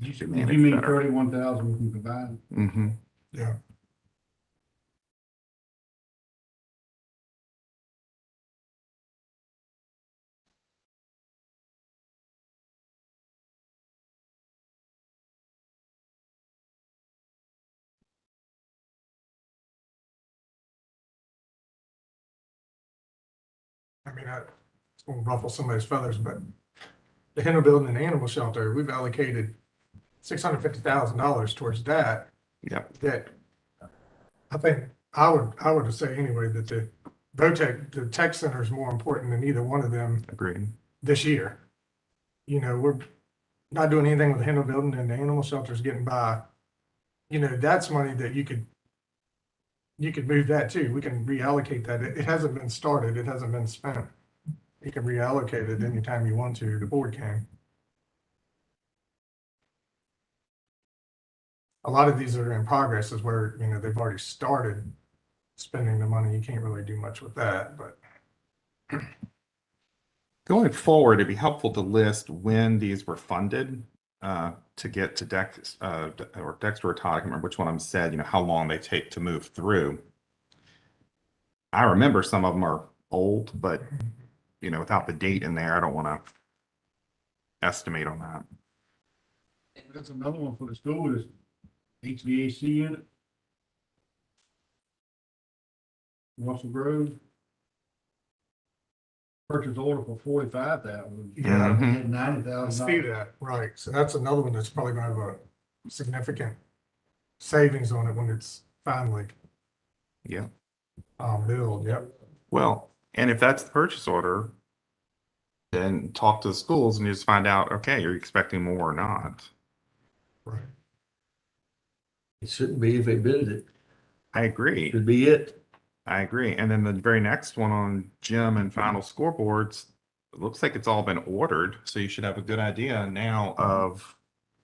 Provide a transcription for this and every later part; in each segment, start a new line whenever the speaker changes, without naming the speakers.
You
You mean thirty-one thousand we can provide?
Mm-hmm.
Yeah.
I mean, I, it's gonna ruffle somebody's feathers, but the Henry Building and Animal Shelter, we've allocated six hundred fifty thousand dollars towards that.
Yep.
That, I think, I would, I would say anyway, that the VOTEC, the tech center is more important than either one of them
Agreed.
this year. You know, we're not doing anything with the Henry Building and the Animal Shelter's getting by. You know, that's money that you could, you could move that too. We can reallocate that. It, it hasn't been started. It hasn't been spent. You can reallocate it anytime you want to, the board can. A lot of these that are in progress is where, you know, they've already started spending the money. You can't really do much with that, but
Going forward, it'd be helpful to list when these were funded uh, to get to Dex, uh, or Dexter or Todd, I can't remember which one of them said, you know, how long they take to move through. I remember some of them are old, but, you know, without the date in there, I don't want to estimate on that.
That's another one for the school is HVAC unit. Russell Grove. Purchase order for forty-five thousand.
Yeah.
Mm-hmm.
Ninety
I see
thousand.
that, right. So that's another one that's probably gonna have a significant savings on it when it's finally
Yeah.
um, billed, yep.
Well, and if that's the purchase order, then talk to the schools and just find out, okay, you're expecting more or not.
Right.
It shouldn't be if they bid it,
I agree.
it should be it.
I agree. And then the very next one on gym and final scoreboards, it looks like it's all been ordered. So you should have a good idea now of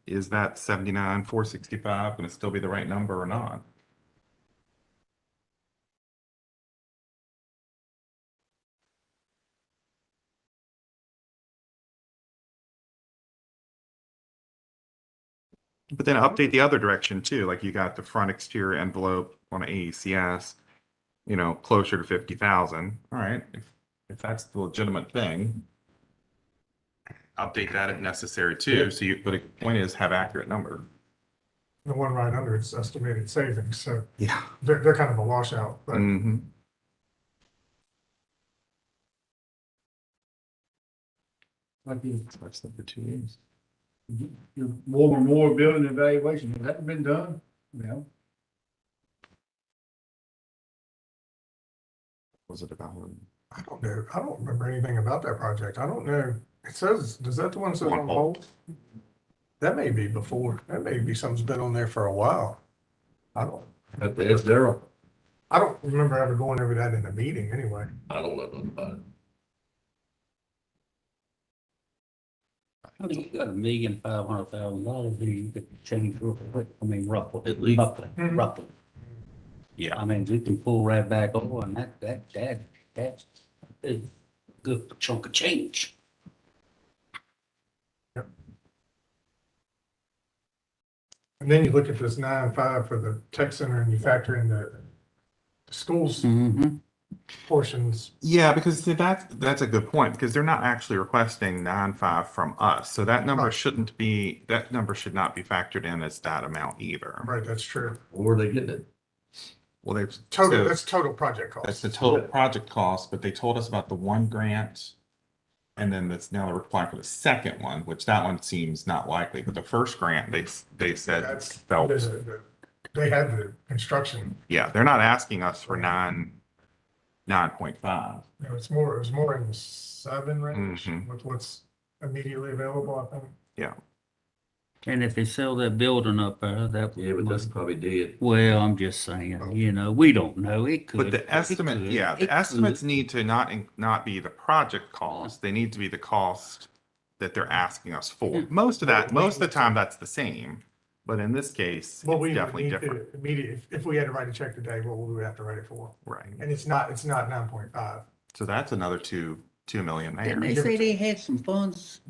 is that seventy-nine, four sixty-five gonna still be the right number or not? But then update the other direction too, like you got the front exterior envelope on AECS you know, closer to fifty thousand, all right, if, if that's the legitimate thing. Update that if necessary too, so you, but the point is have accurate number.
The one right under it's estimated savings, so
Yeah.
they're, they're kind of a washout, but
hmm
Like the,
That's number two years.
the more and more building evaluation, has that been done? No.
Was it about one?
I don't know. I don't remember anything about that project. I don't know. It says, does that the one that says
On
on hold? That may be before. That may be something's been on there for a while. I don't,
Have to ask Daryl.
I don't remember ever going over that in a meeting anyway.
I don't know nothing about it.
I mean, you got a million five hundred thousand dollars, there you could change real quick, I mean, roughly,
At least.
roughly,
Mhm.
roughly.
Yeah.
I mean, we can pull right back over and that, that, that, that's a good chunk of change.
And then you look at this nine oh five for the tech center and you factor in the schools
Mm-hmm.
portions.
Yeah, because see, that's, that's a good point, because they're not actually requesting nine five from us, so that number
Right.
shouldn't be, that number should not be factored in as that amount either.
Right, that's true.
Or they getting it?
Well, they've.
Total,
so-
that's total project
That's
cost.
the total project cost, but they told us about the one grant. And then that's now they're applying for the second one, which that one seems not likely, but the first grant, they, they said,
That's-
felt,
There's a- the- They had the construction,
yeah, they're not asking us for nine, nine point five.
you know, it's more, it was more in the seven range
Mhm.
with what's immediately available, I think.
And if they sell that building up there, that.
Yeah, but that's probably dead.
Well, I'm just saying, you know, we don't know, it could.
But the
it
estimate,
could,
yeah, the
it could.
estimates need to not, in- not be the project cost. They need to be the cost that they're asking us for.
Yeah.
Most of that,
Well, we-
most of the time, that's the same, but in this case,
Well, we
it's
would
definitely
need
different,
to immediately, if- if we had to write a check today, what would we have to write it for?
right?
And it's not, it's not nine point five.
So that's another two, two million there.
Didn't they say they had some funds